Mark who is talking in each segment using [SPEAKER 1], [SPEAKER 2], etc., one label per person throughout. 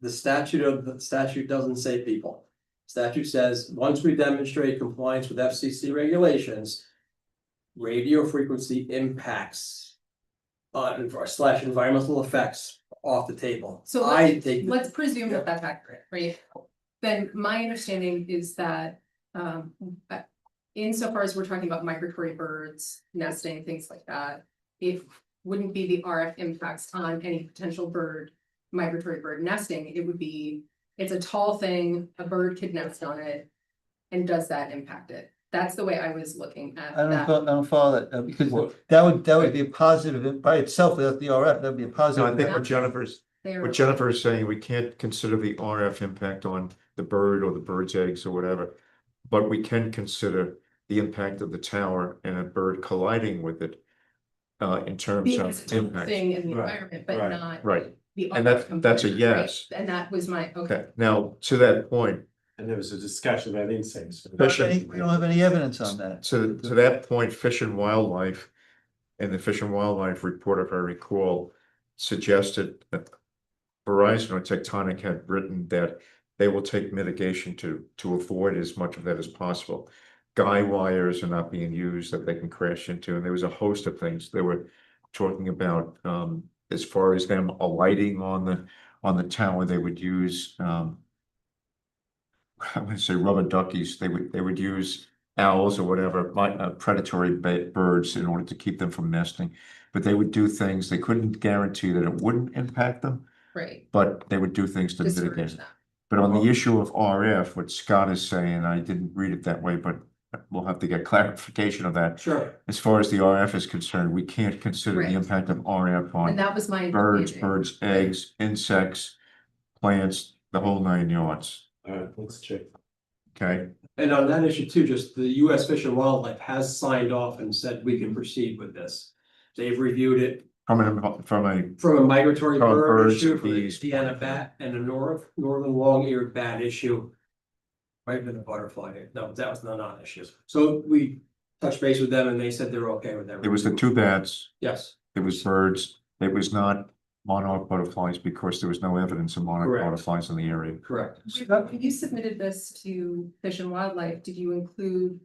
[SPEAKER 1] the statute of, the statute doesn't say people. Statute says, once we demonstrate compliance with FCC regulations. Radio frequency impacts. Uh, and for- slash environmental effects off the table.
[SPEAKER 2] So
[SPEAKER 1] I take, the-
[SPEAKER 2] Let's presume that that's accurate, right? Then my understanding is that, um, uh, insofar as we're talking about migratory birds, nesting, things like that. If, wouldn't be the RF impacts on any potential bird, migratory bird nesting, it would be, it's a tall thing, a bird could nest on it. And does that impact it? That's the way I was looking at
[SPEAKER 3] I don't,
[SPEAKER 2] that.
[SPEAKER 3] fo- I don't follow that, though, because
[SPEAKER 4] Well-
[SPEAKER 3] that would, that would be a positive in- by itself without the RF, that'd be a
[SPEAKER 4] No, I
[SPEAKER 3] positive.
[SPEAKER 4] think what Jennifer's,
[SPEAKER 2] They are-
[SPEAKER 4] what Jennifer is saying, we can't consider the RF impact on the bird or the bird's eggs or whatever. But we can consider the impact of the tower and a bird colliding with it. Uh, in terms
[SPEAKER 2] being a
[SPEAKER 4] of
[SPEAKER 2] tall
[SPEAKER 4] impact,
[SPEAKER 2] Thing in the
[SPEAKER 4] Right,
[SPEAKER 2] environment, but
[SPEAKER 4] right,
[SPEAKER 2] not
[SPEAKER 4] right,
[SPEAKER 2] the. RF
[SPEAKER 4] and that's, that's a
[SPEAKER 2] component, right?
[SPEAKER 4] yes,
[SPEAKER 2] And that was my, okay,
[SPEAKER 4] okay, now, to that point.
[SPEAKER 5] And there was a discussion about insects.
[SPEAKER 3] We don't have any- We don't have any evidence on that.
[SPEAKER 4] To, to that point, Fish and Wildlife and the Fish and Wildlife report, if I recall, suggested that Verizon or Tectonic had written that they will take mitigation to, to avoid as much of that as possible. Guy wires are not being used that they can crash into, and there was a host of things they were talking about, um, as far as them alighting on the, on the tower, they would use, um, I would say rubber duckies, they would, they would use owls or whatever, like uh, predatory ba- birds in order to keep them from nesting. But they would do things, they couldn't guarantee that it wouldn't impact them,
[SPEAKER 2] right.
[SPEAKER 4] but they would do things to
[SPEAKER 2] discourage
[SPEAKER 4] mitigate it.
[SPEAKER 2] that.
[SPEAKER 4] But on the issue of RF, what Scott is saying, I didn't read it that way, but we'll have to get clarification of that.
[SPEAKER 1] sure,
[SPEAKER 4] As far as the RF is concerned, we can't consider the
[SPEAKER 2] Right.
[SPEAKER 4] impact of RF
[SPEAKER 2] And
[SPEAKER 4] on
[SPEAKER 2] that was my.
[SPEAKER 4] birds,
[SPEAKER 2] understanding.
[SPEAKER 4] birds' eggs, insects, plants, the whole nine yards,
[SPEAKER 5] Alright, let's check.
[SPEAKER 4] okay?
[SPEAKER 1] and on that issue too, just the US Fish and Wildlife has signed off and said we can proceed with this. They've reviewed it
[SPEAKER 4] From an, from a
[SPEAKER 1] from a migratory
[SPEAKER 4] From
[SPEAKER 1] bird
[SPEAKER 4] birds,
[SPEAKER 1] issue, from the
[SPEAKER 4] bees.
[SPEAKER 1] Deanna bat and a nor- northern long-eared bat issue. Might have been a butterfly, no, that was not an issue, so we touched base with them and they said they're okay with everything.
[SPEAKER 4] It was the two bats,
[SPEAKER 1] Yes,
[SPEAKER 4] it was birds, it was not monarch butterflies because there was no evidence of monarch
[SPEAKER 1] Correct.
[SPEAKER 4] butterflies in the area.
[SPEAKER 1] correct,
[SPEAKER 2] When you submitted this to Fish and Wildlife, did you include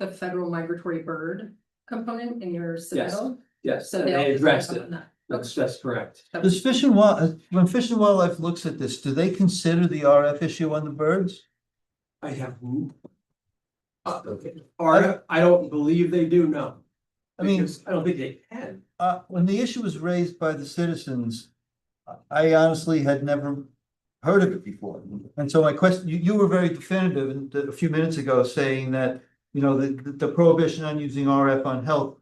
[SPEAKER 2] the federal migratory bird component in your submittal?
[SPEAKER 1] yes,
[SPEAKER 2] So
[SPEAKER 1] and
[SPEAKER 2] all
[SPEAKER 1] they addressed
[SPEAKER 2] picked
[SPEAKER 1] it,
[SPEAKER 2] up on that.
[SPEAKER 1] that's, that's correct.
[SPEAKER 2] That
[SPEAKER 3] Does
[SPEAKER 2] was-
[SPEAKER 3] Fish and Wild, when Fish and Wildlife looks at this, do they consider the RF issue on the birds?
[SPEAKER 1] I have. Uh, or, I don't believe they do, no.
[SPEAKER 3] I mean-
[SPEAKER 1] Because I don't think they can,
[SPEAKER 3] Uh, when the issue was raised by the citizens, I honestly had never heard of it before. And so my question, you, you were very definitive in- a few minutes ago saying that, you know, the, the prohibition on using RF on health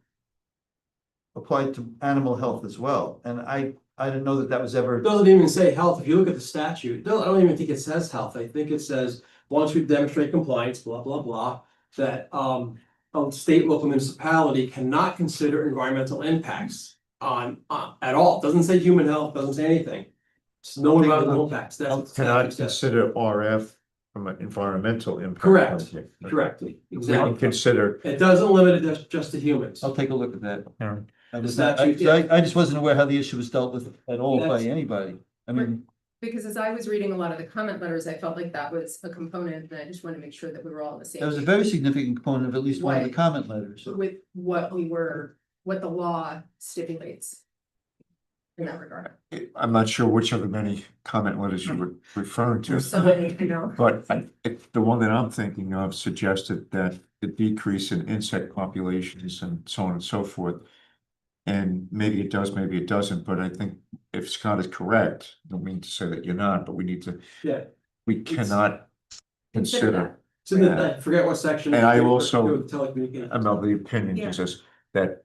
[SPEAKER 3] applied to animal health as well. And I, I didn't know that that was ever,
[SPEAKER 1] it doesn't even say health, if you look at the statute, no, I don't even think it says health, I think it says, once we demonstrate compliance, blah, blah, blah. That, um, a state, local municipality cannot consider environmental impacts on, uh, at all, doesn't say human health, doesn't say anything. It's no environmental impacts, that's. what the
[SPEAKER 4] Cannot
[SPEAKER 1] statute says.
[SPEAKER 4] consider RF from an environmental impact.
[SPEAKER 1] Correct.
[SPEAKER 4] point of view.
[SPEAKER 1] Correctly,
[SPEAKER 4] We can
[SPEAKER 1] exactly,
[SPEAKER 4] consider,
[SPEAKER 1] it doesn't limit it just, just to humans.
[SPEAKER 3] I'll take a look at that.
[SPEAKER 4] Aaron,
[SPEAKER 3] I
[SPEAKER 1] Does
[SPEAKER 3] was
[SPEAKER 1] that
[SPEAKER 3] not, I,
[SPEAKER 1] you-
[SPEAKER 3] I I just wasn't aware how the issue was dealt with at all by
[SPEAKER 1] That's-
[SPEAKER 3] anybody. I mean,
[SPEAKER 2] Because as I was reading a lot of the comment letters, I felt like that was a component, and I just wanted to make sure that we were all on the same.
[SPEAKER 3] that was a
[SPEAKER 2] page
[SPEAKER 3] very significant component of at least one of the
[SPEAKER 2] Why?
[SPEAKER 3] comment letters.
[SPEAKER 2] With what we were, what the law stipulates. In that regard,
[SPEAKER 4] I'm not sure which of the many comment letters
[SPEAKER 1] Hmm.
[SPEAKER 4] you were referring to.
[SPEAKER 2] so I know.
[SPEAKER 4] But I, it- the one that I'm thinking of suggested that the decrease in insect populations and so on and so forth. And maybe it does, maybe it doesn't, but I think if Scott is correct, I don't mean to say that you're not, but we need to,
[SPEAKER 1] Yeah,
[SPEAKER 4] we cannot consider.
[SPEAKER 1] so then I forget what section.
[SPEAKER 4] And I
[SPEAKER 1] it's in, but
[SPEAKER 4] also-
[SPEAKER 1] it was telecommunications.
[SPEAKER 4] I'm of the opinion is this, that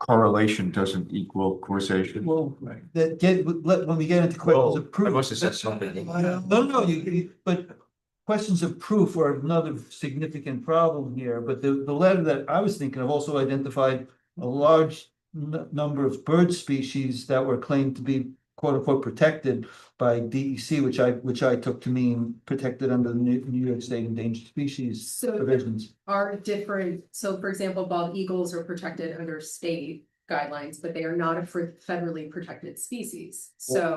[SPEAKER 4] correlation doesn't equal causation.
[SPEAKER 3] Well,
[SPEAKER 4] Right.
[SPEAKER 3] that get, let, when we get into questions of proof.
[SPEAKER 4] Oh, have said something.
[SPEAKER 3] No, no, you- you, but questions of proof are another significant problem here, but the, the letter that I was thinking of also identified a large n- number of bird species that were claimed to be quote unquote protected by DEC, which I, which I took to mean protected under the New, New York State Endangered Species
[SPEAKER 2] So there
[SPEAKER 3] provisions.
[SPEAKER 2] are different, so for example, bald eagles are protected under state guidelines, but they are not a fr- federally protected species, so.